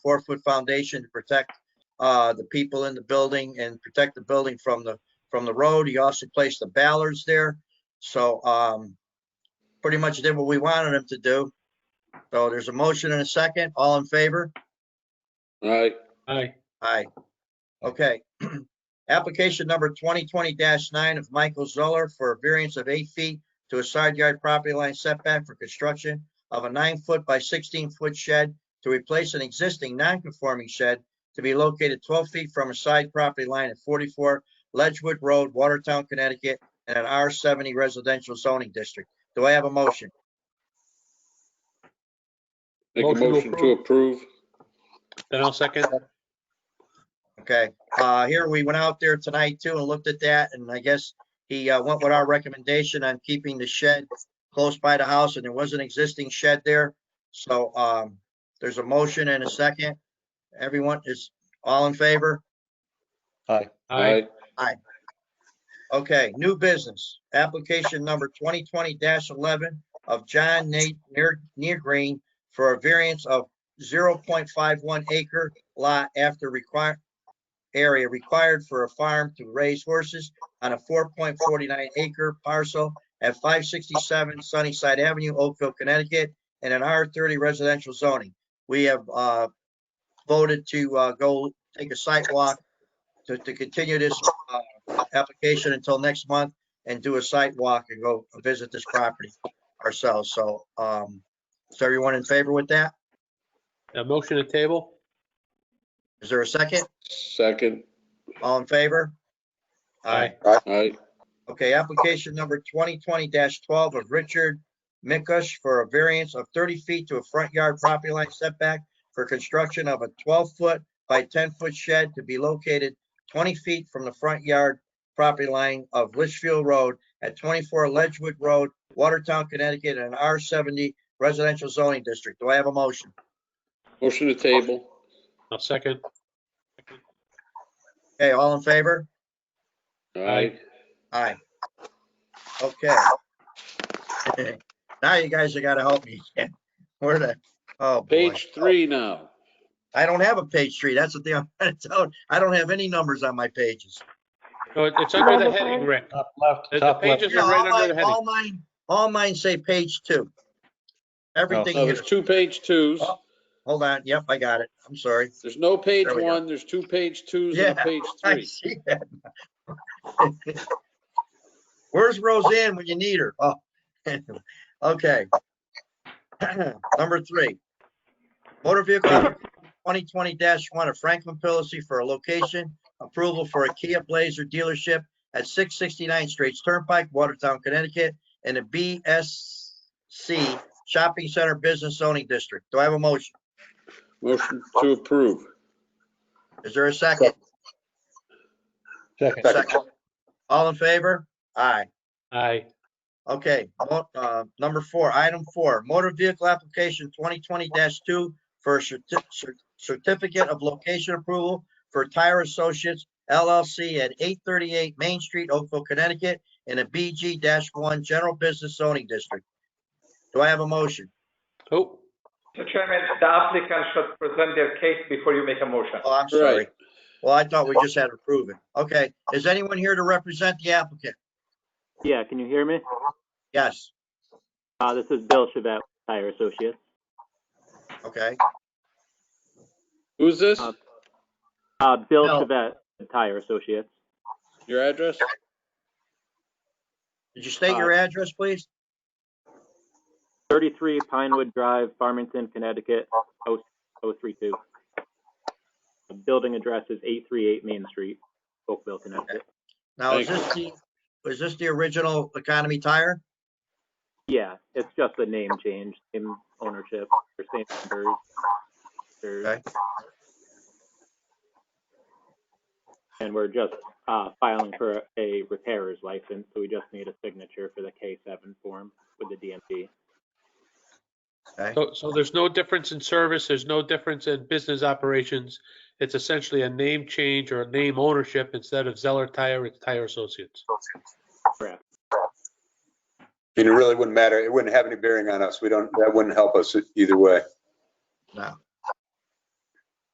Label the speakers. Speaker 1: four-foot foundation to protect uh, the people in the building and protect the building from the, from the road. He also placed the ballards there. So um, pretty much did what we wanted him to do. So there's a motion and a second. All in favor?
Speaker 2: All right,
Speaker 3: Aye.
Speaker 1: Aye. Okay. Application number twenty twenty nine of Michael Zoller for a variance of eight feet to a side yard property line setback for construction of a nine foot by sixteen foot shed to replace an existing non-conforming shed to be located twelve feet from a side property line at forty-four Ledgewood Road, Watertown, Connecticut, in an R seventy residential zoning district. Do I have a motion?
Speaker 2: make a
Speaker 3: Motion to
Speaker 2: motion to approve.
Speaker 3: Then I'll second.
Speaker 1: Okay, uh, here, we went out there tonight too and looked at that, and I guess he, uh, went with our recommendation on keeping the shed close by the house, and there was an existing shed there. So, um, there's a motion and a second. Everyone is all in favor?
Speaker 3: Aye.
Speaker 1: Okay, new business, application number twenty twenty eleven of John Nate Near, Near Green for a variance of zero point five one acre lot after required area required for a farm to raise horses on a four point forty-nine acre parcel at five sixty-seven Sunnyside Avenue, Oakville, Connecticut, in an R thirty residential zoning. We have, uh, voted to, uh, go take a site walk to, to continue this, uh, application until next month and do a site walk and go visit this property ourselves. So, um, is everyone in favor with that?
Speaker 3: A motion to table?
Speaker 1: Is there a second?
Speaker 2: Second,
Speaker 1: All in favor?
Speaker 2: all right,
Speaker 1: Okay, application number twenty twenty twelve of Richard Mikush for a variance of thirty feet to a front yard property line setback for construction of a twelve-foot by ten-foot shed to be located twenty feet from the front yard property line of Litchfield Road at twenty-four Ledgewood Road, Watertown, Connecticut, in an R seventy residential zoning district. Do I have a motion?
Speaker 2: motion to table.
Speaker 3: I'll second.
Speaker 1: Okay, all in favor?
Speaker 2: All right,
Speaker 1: Aye. Okay. Now you guys are gotta help me. Where the, oh boy.
Speaker 2: page three now.
Speaker 1: I don't have a page three. That's the thing I'm trying to tell. you. I don't have any numbers on my pages.
Speaker 3: No, it- it's under the heading, Rick.
Speaker 4: Top left,
Speaker 3: The- the
Speaker 4: top left.
Speaker 3: pages- Those
Speaker 1: Yeah,
Speaker 3: are right
Speaker 1: all
Speaker 3: under
Speaker 1: mine-
Speaker 3: the heading.
Speaker 1: All mine, all mine say page two. Everything
Speaker 2: No,
Speaker 3: Oh,
Speaker 1: here,
Speaker 2: Oh, there's two page twos.
Speaker 1: hold on. Yep, I got it. I'm sorry.
Speaker 2: There's no page
Speaker 1: There we go.
Speaker 2: one, there's two page twos and
Speaker 1: Yeah.
Speaker 2: a page
Speaker 1: I
Speaker 2: three.
Speaker 1: see that. Where's Roseanne when you need her? Oh, okay. Number three. Motor vehicle twenty twenty one of Franklin Pilacy for a location approval for a Kia Blazer dealership at six sixty-nine Straits Turnpike, Watertown, Connecticut, in the BSC Shopping Center Business Zoning District. Do I have a motion?
Speaker 2: Motion to approve.
Speaker 1: Is there a second?
Speaker 4: Second.
Speaker 1: Second. All in favor? Aye.
Speaker 3: Aye.
Speaker 1: Okay, mo- uh, number four, item four, motor vehicle application twenty twenty two for a certi- cer- certificate of location approval for Tire Associates LLC at eight thirty-eight Main Street, Oakville, Connecticut, in a BG one general business zoning district. Do I have a motion?
Speaker 3: Oh,
Speaker 5: Mr. Chairman, the applicant should present their case before you make a motion.
Speaker 1: Oh, I'm sorry.
Speaker 2: Right,
Speaker 1: Well, I thought we just had to prove it. Okay, is anyone here to represent the applicant?
Speaker 6: Yeah, can you hear me?
Speaker 1: Yes,
Speaker 6: Uh, this is Bill Chavette, Tire Associates.
Speaker 1: okay,
Speaker 2: who's this?
Speaker 6: Uh, Uh, Bill
Speaker 1: Bill.
Speaker 6: Chavette, Tire Associates.
Speaker 2: Your address?
Speaker 1: did you state
Speaker 2: Uh,
Speaker 1: your address, please?
Speaker 6: 33 Pinewood Drive, Farmington, Connecticut, oh, 032. The Building address is 838 Main Street, Oakville, Connecticut.
Speaker 1: Now, is this
Speaker 2: Thank
Speaker 1: the, is this the original Economy Tire?
Speaker 6: Yeah, it's just a name change, same ownership, or same numbers. or-
Speaker 1: Okay.
Speaker 6: And we're just, uh, filing for a repairer's license, so we just need a signature for the K7 form with the DMV.
Speaker 3: so, so there's no difference in service, there's no difference in business operations. It's essentially a name change or a name ownership. Instead of Zeller Tire, it's Tire Associates.
Speaker 7: And it really wouldn't matter. It wouldn't have any bearing on us. We don't, that wouldn't help us either way.
Speaker 1: No.